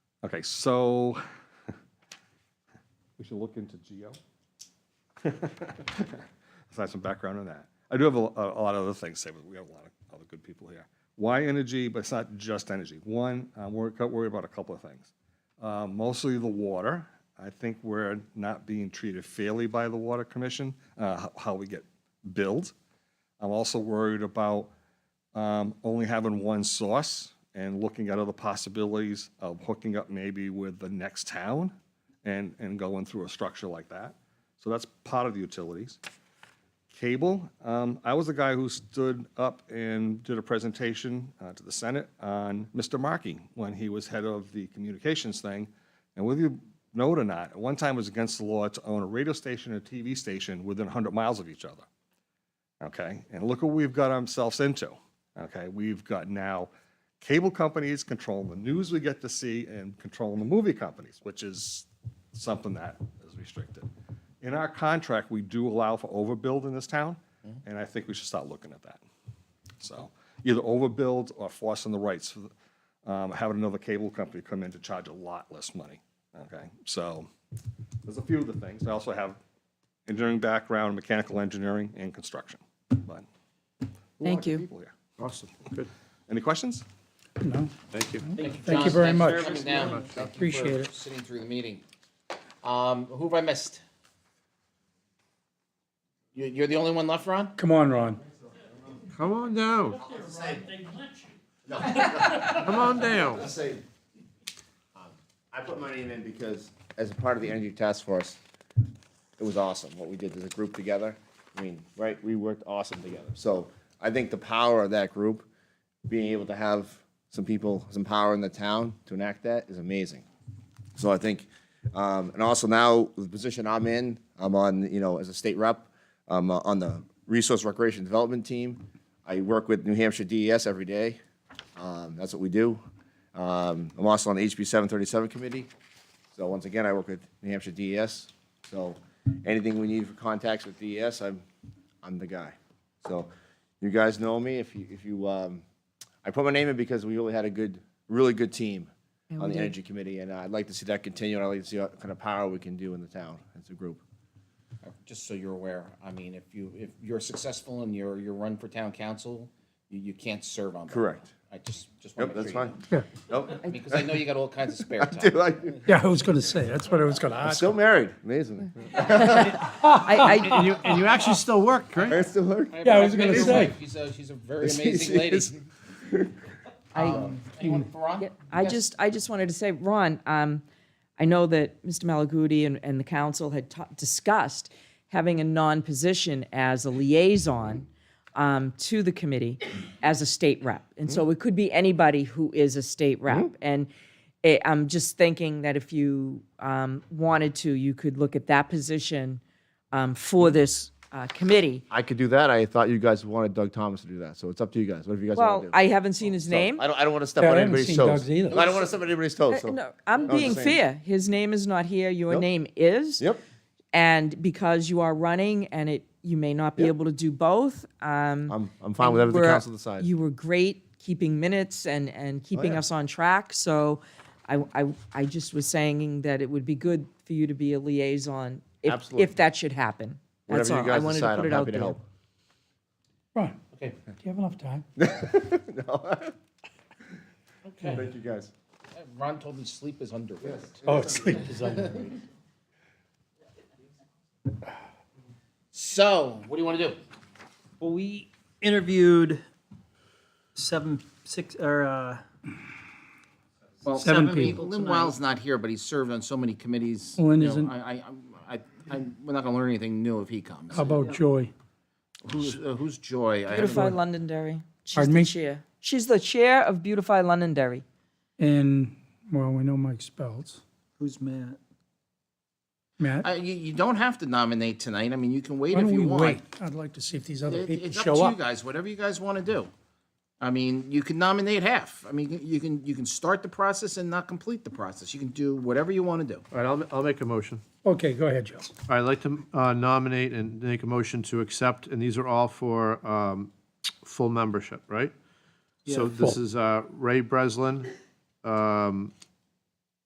Okay, so we should look into geo. Let's have some background on that. I do have a, a a lot of other things to say, but we have a lot of other good people here. Why energy, but it's not just energy. One, I'm worried, worried about a couple of things. Uh, Mostly the water. I think we're not being treated fairly by the Water Commission, uh, h- how we get billed. I'm also worried about um, only having one source and looking at other possibilities of hooking up maybe with the next town and, and going through a structure like that. So that's part of the utilities. Cable, um, I was the guy who stood up and did a presentation uh, to the Senate on Mr. Markey when he was head of the communications thing. And whether you know it or not, at one time it was against the law to own a radio station and a TV station within 100 miles of each other okay? And look what we've got ourselves into, okay? We've got now cable companies controlling the news we get to see and controlling the movie companies, which is something that is restricted. In our contract, we do allow for overbuild in this town, and I think we should start looking at that. So either overbuild or forcing the rights, for the- um, having another cable company come in to charge a lot less money, okay? So there's a few of the things. I also have engineering background, mechanical engineering, and construction. But a lot Thank of you. people here. Awesome, good. Any questions? No, Thank you. Thank you John, very thanks much. for coming down. Thank you Appreciate for it. Sitting through the meeting. Um, who have I missed? You, you're the only one left, Ron? come on, Ron. Come on down. Come on down. say, um, I put my name in because as a part of the energy task force, it was awesome what we did as a group together. I mean, right, we worked awesome together. So I think the power of that group, being able to have some people, some power in the town to enact that is amazing. So I think, um, and also now the position I'm in, I'm on, you know, as a state rep, I'm uh, on the Resource Recreation Development Team. I work with New Hampshire DES every day. Um, that's what we do. Um, I'm also on the HB 737 committee. So once again, I work with New Hampshire DES. So anything we need for contacts with DES, I'm, I'm the guy. So you guys know me. If you, if you, um, I put my name in because we really had a good, really good team on the energy committee, and I'd like to see that continue. And I'd like to see what kind of power we can do in the town as a group. Just so you're aware, I mean, if you, if you're successful in your, your run for town council, you, you can't serve on that. Correct. I just, just want Yep, to make that's sure. fine. Nope. Because I know you got all kinds of spare time. I do. Yeah, I was gonna say, that's what I was gonna ask. Still married, amazing. I, And you, and you actually still work, right? Married, still married. Yeah, I was gonna Your say. wife, She's a, she's a very amazing lady. Um, I, I, Anyone for Ron? Yeah, I Yes. just, I just wanted to say, Ron, um, I know that Mr. Malaguti and, and the council had ta- discussed having a non-position as a liaison um, to the committee as a state rep. And so it could be anybody who is a state rep. And eh, I'm just thinking that if you um, wanted to, you could look at that position um, for this uh, committee. I could do that. I thought you guys wanted Doug Thomas to do that, so it's up to you guys. Whatever you guys want Well, to do. I haven't seen his name. I don't, I don't want to step Yeah, I on haven't anybody's seen toes. Doug's either. I don't want to step on anybody's toes. So. No, I'm I was being saying- fair. His name is not here. Your Yep. name is. Yep. And because you are running and it, you may not be able to do both. Um, I'm, I'm fine with whatever Oh, the we're- council decides. You were great keeping minutes and, and keeping yeah. us on track. So I, I, I just was saying that it would be good for you to be a liaison if, Absolutely. if that should happen. That's whatever all. you guys I wanted to decide, put I'm it out happy to there. help. Ron, do Okay, you have enough time? okay. Thank you guys. Ron told me sleep is underrated. Oh, it's like, So, what do you want to do? Well, we interviewed seven, six, or, uh, Well, Seven seven people. people Lynn Wild's not here, but he's served on so many committees. Well, Lynn you know, isn't. I, I, I, I, we're not gonna learn anything new if he comes. how about Joy? Who's, uh, who's Joy? I haven't- Beautify Londonderry. She's Pardon the me? chair. She's the chair of Beautify Londonderry. And, well, we know Mike Spells. who's Matt? Matt, I, you, you don't have to nominate tonight. I mean, you can wait why if don't we you wait? want. I'd like to see if these other It- people It's up show to you up. guys, whatever you guys wanna do. I mean, you can nominate half. I mean, you can, you can start the process and not complete the process. You can do whatever you wanna do. All right, I'll, I'll make a motion. Okay, go ahead, Joe. All right, I'd like to uh, nominate and make a motion to accept, and these are all for um, full membership, right? So this is uh, Ray Breslin, um,